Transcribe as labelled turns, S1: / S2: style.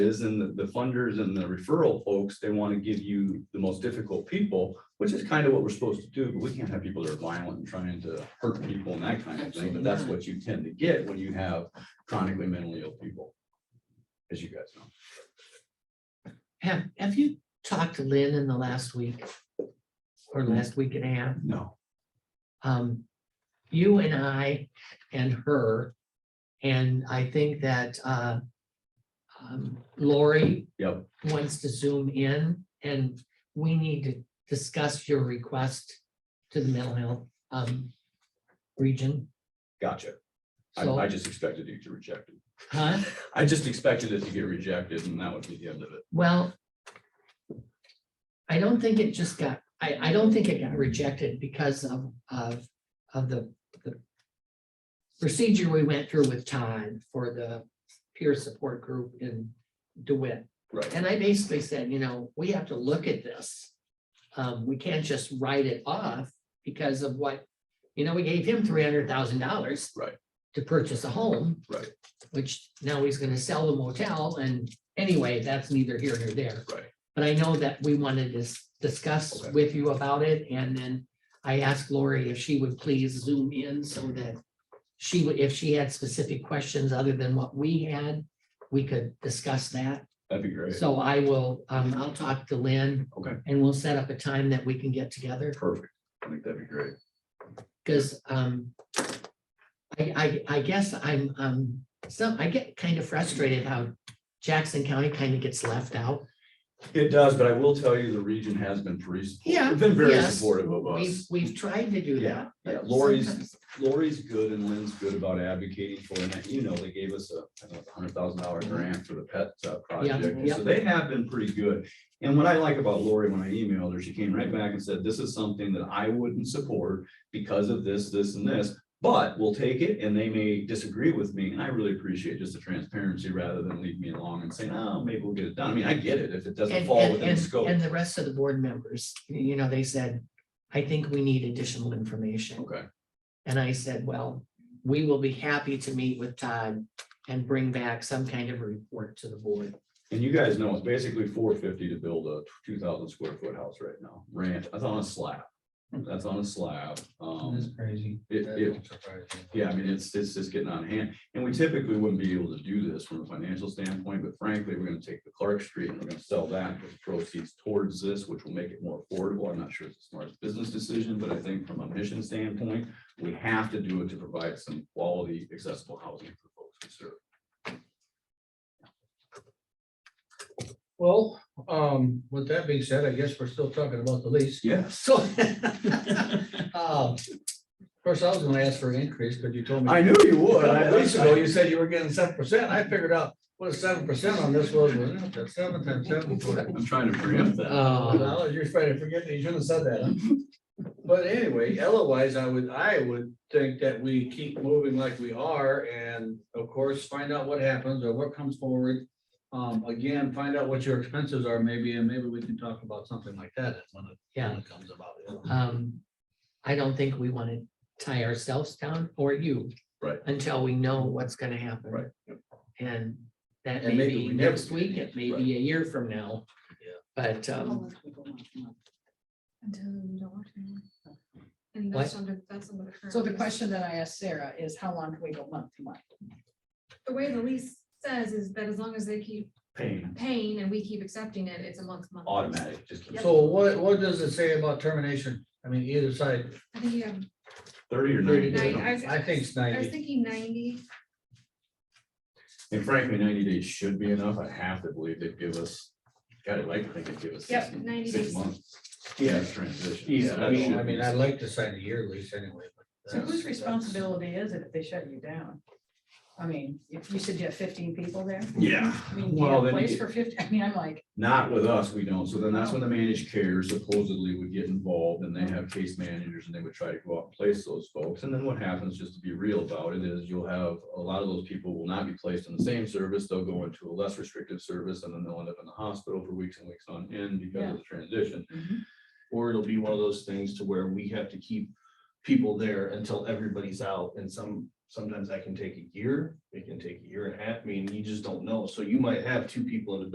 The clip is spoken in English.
S1: is and the, the funders and the referral folks, they want to give you the most difficult people, which is kind of what we're supposed to do, but we can't have people that are violent and trying to hurt people and that kind of thing, but that's what you tend to get when you have chronically mentally ill people. As you guys know.
S2: Have, have you talked to Lynn in the last week? Or last week and a half?
S1: No.
S2: Um, you and I and her, and I think that, uh, um, Lori
S1: Yep,
S2: wants to zoom in, and we need to discuss your request to the mental health, um, region.
S1: gotcha. I,
S2: So-
S1: I just expected you to reject it.
S2: Huh?
S1: I just expected it to get rejected and that would be the end of it.
S2: Well, I don't think it just got, I, I don't think it got rejected because of, of, of the, the procedure we went through with Todd for the peer support group in DeWitt.
S1: Right.
S2: And I basically said, you know, we have to look at this. Um, we can't just write it off because of what, you know, we gave him three hundred thousand dollars.
S1: Right.
S2: To purchase a home.
S1: Right.
S2: Which now he's gonna sell the motel and anyway, that's neither here nor there.
S1: Right.
S2: But I know that we wanted to s- discuss
S1: Okay.
S2: with you about it and then I asked Lori if she would please zoom in so that she would, if she had specific questions other than what we had, we could discuss that.
S1: That'd be great.
S2: So I will, um, I'll talk to Lynn.
S1: Okay.
S2: And we'll set up a time that we can get together,
S1: Perfect. I think that'd be great.
S2: because, um, I, I, I guess I'm, um, some, I get kind of frustrated how Jackson County kind of gets left out.
S1: It does, but I will tell you, the region has been pretty,
S2: Yeah.
S1: they've been very
S2: Yes.
S1: supportive of us.
S2: We've, we've tried to do
S1: Yeah,
S2: that.
S1: yeah,
S2: but
S1: Lori's-
S2: sometimes-
S1: Lori's good and Lynn's good about advocating for, and you know, they gave us a hundred thousand dollar grant for the pet uh, project. and
S2: yeah.
S1: So they have been pretty good. And what I like about Lori, when I emailed her, she came right back and said, this is something that I wouldn't support because of this, this and this. But we'll take it and they may disagree with me. And I really appreciate just the transparency rather than leave me along and saying, oh, maybe we'll get it done. I mean, I get it if it doesn't
S2: And,
S1: fall
S2: and,
S1: within
S2: and,
S1: scope.
S2: and the rest of the board members, you know, they said, I think we need additional information.
S1: Okay,
S2: And I said, well, we will be happy to meet with Todd and bring back some kind of report to the board.
S1: and you guys know it's basically four fifty to build a two thousand square foot house right now. Ranch, that's on a slab. That's on a slab.
S3: That's
S1: Um,
S3: crazy.
S1: it,
S3: That
S1: it,
S3: don't surprise me.
S1: yeah, I mean, it's, it's just getting on hand. And we typically wouldn't be able to do this from a financial standpoint, but frankly, we're gonna take the Clark Street and we're gonna sell that with proceeds towards this, which will make it more affordable. I'm not sure it's the smartest business decision, but I think from a mission standpoint, we have to do it to provide some quality accessible housing for folks we serve.
S3: Well, um, with that being said, I guess we're still talking about the lease.
S1: Yes.
S3: So. um, Of course, I was gonna ask for an increase, but you told me.
S1: I knew you would. I-
S3: A week ago, you said you were getting seven percent. I figured out what a seven percent on this was, wasn't it? That's seven times seven.
S1: I'm trying to preempt that.
S2: Oh,
S3: Well, You're trying to forget that you shouldn't have said that. huh? But anyway, otherwise, I would, I would think that we keep moving like we are and of course, find out what happens or what comes forward. Um, again, find out what your expenses are maybe, and maybe we can talk about something like that when it, when
S2: yeah.
S3: it comes about. you know?
S2: Um, I don't think we want to tie ourselves down or you.
S1: Right.
S2: Until we know what's going to happen.
S1: Right.
S2: And that
S3: And
S2: may
S3: maybe
S2: be
S3: we never
S2: next
S3: do
S2: week,
S3: anything.
S2: it may
S1: Right.
S2: be a year from now.
S3: Yeah.
S2: But, um,
S4: Unless we go on a month.
S5: Until you don't want to. And
S2: What?
S5: that's under, that's under the current.
S4: So the
S5: lease.
S4: question that I asked Sarah is how long can we go month to month?
S5: The way the lease says is that as long as they keep
S1: Pain,
S5: paying and we keep accepting it, it's a month, to month.
S1: automatic, just keep-
S3: So what, what does it say about termination? I mean, either side,
S5: I think you have,
S1: thirty or
S3: Thirty
S1: ninety.
S3: days.
S1: days.
S5: nine- I was,
S3: I think it's
S5: I was
S3: ninety.
S5: thinking ninety,
S1: And frankly, ninety days should be enough. I have to believe they'd give us, God, I'd like, to think they'd give us
S5: Yep,
S1: six
S5: 90
S1: six
S5: days.
S1: months. Yeah, transition.
S3: Yeah, I
S1: That
S3: mean,
S1: should
S3: I
S1: be-
S3: mean, I'd like to sign a year lease anyway. but
S4: So whose
S3: that's-
S4: responsibility is it if they shut you down? I mean, if you said you have fifteen people there,
S1: Yeah,
S4: I mean, do you
S1: Well,
S4: have a
S1: then
S4: place
S1: you-
S4: for fifty, I mean, I'm like,
S1: not with us, we don't. So then that's when the managed care supposedly would get involved and they have case managers and they would try to go out and place those folks. And then what happens, just to be real about it, is you'll have, a lot of those people will not be placed in the same service. They'll go into a less restrictive service and then they'll end up in the hospital for weeks and weeks on end because of the transition.
S6: Or it'll be one of those things to where we have to keep people there until everybody's out and some
S1: sometimes that can take a year, it can take a year and a half, I mean, you just don't know, so you might have two people in a